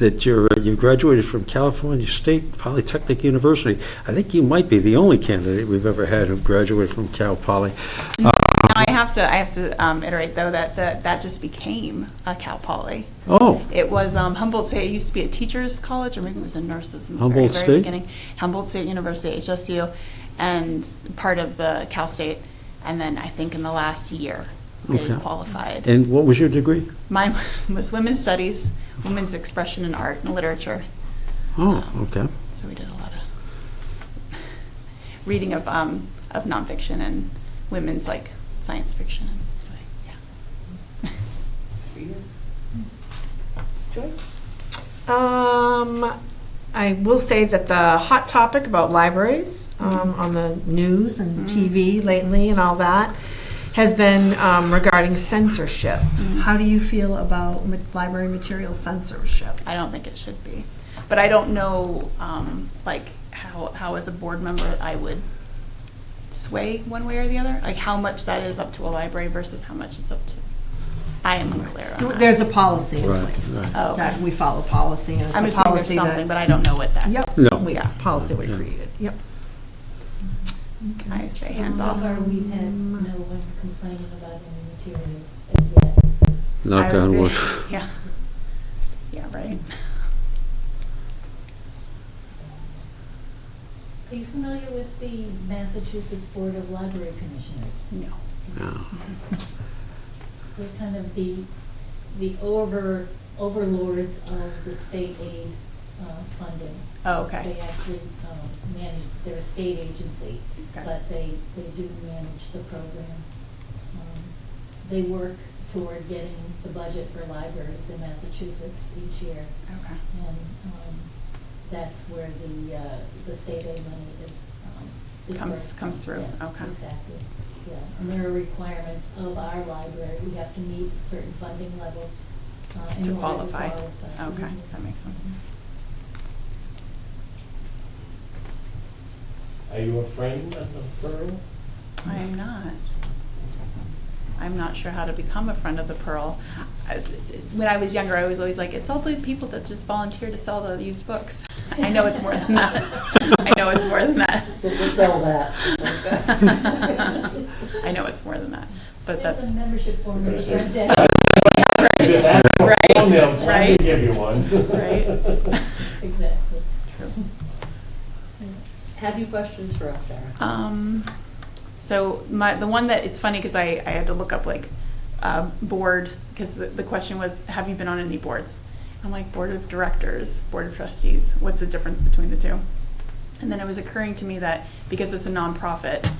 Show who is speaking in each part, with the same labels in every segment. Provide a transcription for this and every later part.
Speaker 1: that you're, uh, you graduated from California State Polytechnic University. I think you might be the only candidate we've ever had who graduated from Cal Poly. Uh,
Speaker 2: Now, I have to, I have to um, iterate, though, that, that, that just became a Cal Poly.
Speaker 1: Oh,
Speaker 2: It was um, Humboldt State, it used to be a teacher's college, or maybe it was a nurse's in the very,
Speaker 1: Humboldt
Speaker 2: very
Speaker 1: State?
Speaker 2: beginning. Humboldt State University, HSU, and part of the Cal State. And then I think in the last year, they
Speaker 1: Okay.
Speaker 2: qualified.
Speaker 1: and what was your degree?
Speaker 2: Mine was, was women's studies, women's expression in art and literature.
Speaker 1: Oh, okay.
Speaker 2: So we did a lot of reading of, um, of nonfiction and women's like science fiction. Anyway, yeah.
Speaker 3: Um, I will say that the hot topic about libraries um, on the news and TV lately and all that has been um, regarding censorship. How do you feel about ma- library material censorship?
Speaker 2: I don't think it should be. But I don't know, um, like, how, how as a board member, I would sway one way or the other? Like, how much that is up to a library versus how much it's up to, I am unclear on that.
Speaker 3: There's a policy in
Speaker 1: Right,
Speaker 3: place
Speaker 1: right.
Speaker 2: Oh, okay.
Speaker 3: that we follow policy, and it's
Speaker 2: I'm
Speaker 3: a
Speaker 2: assuming there's
Speaker 3: policy
Speaker 2: something,
Speaker 3: that
Speaker 2: but I don't know what that.
Speaker 3: yep,
Speaker 1: No.
Speaker 3: we,
Speaker 2: Yeah.
Speaker 3: policy we
Speaker 1: Yeah.
Speaker 3: created. Yep.
Speaker 2: I say hands
Speaker 4: So
Speaker 2: off.
Speaker 4: far, we've had no one complaining about any materials as yet.
Speaker 1: Knock
Speaker 2: I would
Speaker 1: on
Speaker 2: say-
Speaker 1: wood.
Speaker 2: Yeah. Yeah, right.
Speaker 4: Are you familiar with the Massachusetts Board of Library Commissioners?
Speaker 2: No.
Speaker 1: Yeah.
Speaker 4: They're kind of the, the over, overlords of the state aid uh, funding.
Speaker 2: Oh, okay.
Speaker 4: They actually um, manage, they're a state agency,
Speaker 2: Okay.
Speaker 4: but they, they do manage the program. Um, They work toward getting the budget for libraries in Massachusetts each year.
Speaker 2: Okay.
Speaker 4: And um, that's where the, uh, the state aid money is. um, is
Speaker 2: Comes-
Speaker 4: where-
Speaker 2: comes through,
Speaker 4: yeah,
Speaker 2: okay.
Speaker 4: Exactly, yeah. And there are requirements of our library. We have to meet certain funding levels. uh, in
Speaker 2: To
Speaker 4: order
Speaker 2: qualify.
Speaker 4: qualify.
Speaker 2: Okay,
Speaker 4: Mhm.
Speaker 2: that makes sense.
Speaker 5: Are you a friend of the borough?
Speaker 2: I am not. I'm not sure how to become a friend of the Pearl. I- When I was younger, I was always like, it's all the people that just volunteer to sell the used books. I know it's more than that. I know it's more than that.
Speaker 6: We'll sell that.
Speaker 2: I know it's more than that, but
Speaker 4: There's
Speaker 2: that's,
Speaker 4: a membership form in the
Speaker 5: Okay,
Speaker 4: front
Speaker 5: so-
Speaker 4: desk.
Speaker 5: Just ask for
Speaker 2: Right,
Speaker 5: one, they'll gladly
Speaker 2: right.
Speaker 5: give you one.
Speaker 2: Right.
Speaker 4: Exactly.
Speaker 2: True.
Speaker 6: Have you questions for us, Sarah?
Speaker 2: Um, so my, the one that, it's funny because I, I had to look up like, uh, board, because the, the question was, have you been on any boards? I'm like, board of directors, board of trustees, what's the difference between the two? And then it was occurring to me that because it's a nonprofit,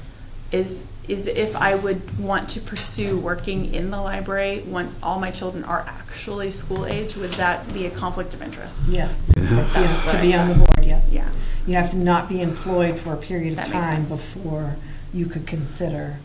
Speaker 2: is, is if I would want to pursue working in the library once all my children are actually school age, would that be a conflict of interest?
Speaker 3: Yes. Yes,
Speaker 2: what
Speaker 3: to
Speaker 2: I
Speaker 3: be on
Speaker 2: got.
Speaker 3: the board, yes.
Speaker 2: Yeah,
Speaker 3: You have to not be employed for a period of
Speaker 2: That makes
Speaker 3: time
Speaker 2: sense.
Speaker 3: before you could consider.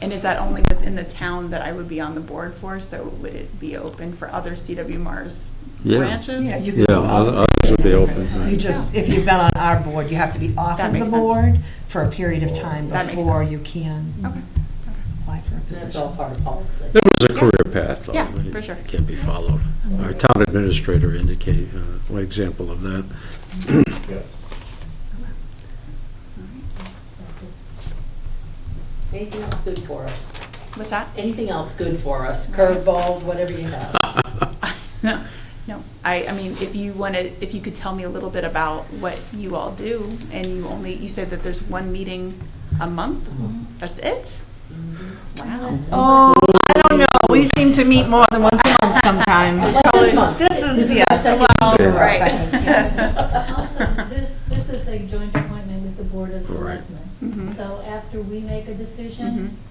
Speaker 2: and is that only within the town that I would be on the board for, so would it be open for other CW Mars
Speaker 1: Yeah.
Speaker 2: branches?
Speaker 3: Yeah, you could
Speaker 1: Yeah,
Speaker 3: be
Speaker 1: oth-
Speaker 3: off.
Speaker 1: others would be open. right.
Speaker 3: You just, if you've been on our board, you have to be off
Speaker 2: That
Speaker 3: of the
Speaker 2: makes sense.
Speaker 3: board for a period of time
Speaker 2: That makes
Speaker 3: before
Speaker 2: sense.
Speaker 3: you can
Speaker 2: Okay,
Speaker 3: apply for a
Speaker 6: That's all
Speaker 3: position.
Speaker 6: part of policy.
Speaker 1: There was a career path, though.
Speaker 2: Yeah,
Speaker 1: that
Speaker 2: for sure.
Speaker 1: Can be followed. Our town administrator indicated uh, one example of that.
Speaker 5: Yeah.
Speaker 6: Anything else good for us?
Speaker 2: what's that?
Speaker 6: Anything else good for us? Curveballs, whatever you have.
Speaker 2: No, no, I, I mean, if you want to, if you could tell me a little bit about what you all do, and you only, you said that there's one meeting a month? That's it? Wow.
Speaker 3: Oh, I don't know. We seem to meet more than once a month sometimes.
Speaker 6: Like this month.
Speaker 3: This is, yes.
Speaker 6: Well,
Speaker 2: right.
Speaker 4: Also, this, this is a joint appointment with the Board of
Speaker 1: Right.
Speaker 4: Selectmen.
Speaker 2: Mhm.
Speaker 4: So after we make a decision,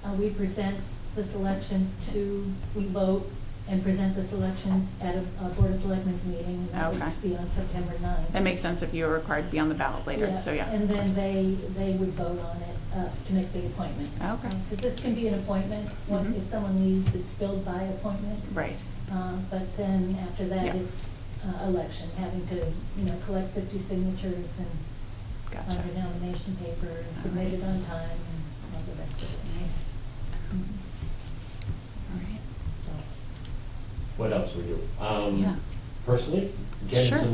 Speaker 2: Mm-hmm.
Speaker 4: uh, we present the selection to, we vote and present the selection at a a Board of Selectmen's meeting. and that would
Speaker 2: Okay.
Speaker 4: Be on September 9th.
Speaker 2: That makes sense if you were required to be on the ballot later, so yeah.
Speaker 4: And then they, they would vote on it uh, to make the appointment.
Speaker 2: Okay.
Speaker 4: Because this can be an appointment, one-
Speaker 2: Mhm.
Speaker 4: if someone leaves, it's filled by appointment.
Speaker 2: Right,
Speaker 4: Uh, But then after that,
Speaker 2: Yeah.
Speaker 4: it's uh, election, having to, you know, collect 50 signatures and
Speaker 2: gotcha.
Speaker 4: on your nomination paper and submit it on time and all the rest of it.
Speaker 2: Nice.
Speaker 4: Mhm.
Speaker 2: Mm-hmm. All right.
Speaker 4: So,
Speaker 5: What else we do? Um,
Speaker 2: Yeah.
Speaker 5: personally, get
Speaker 2: Sure.
Speaker 5: into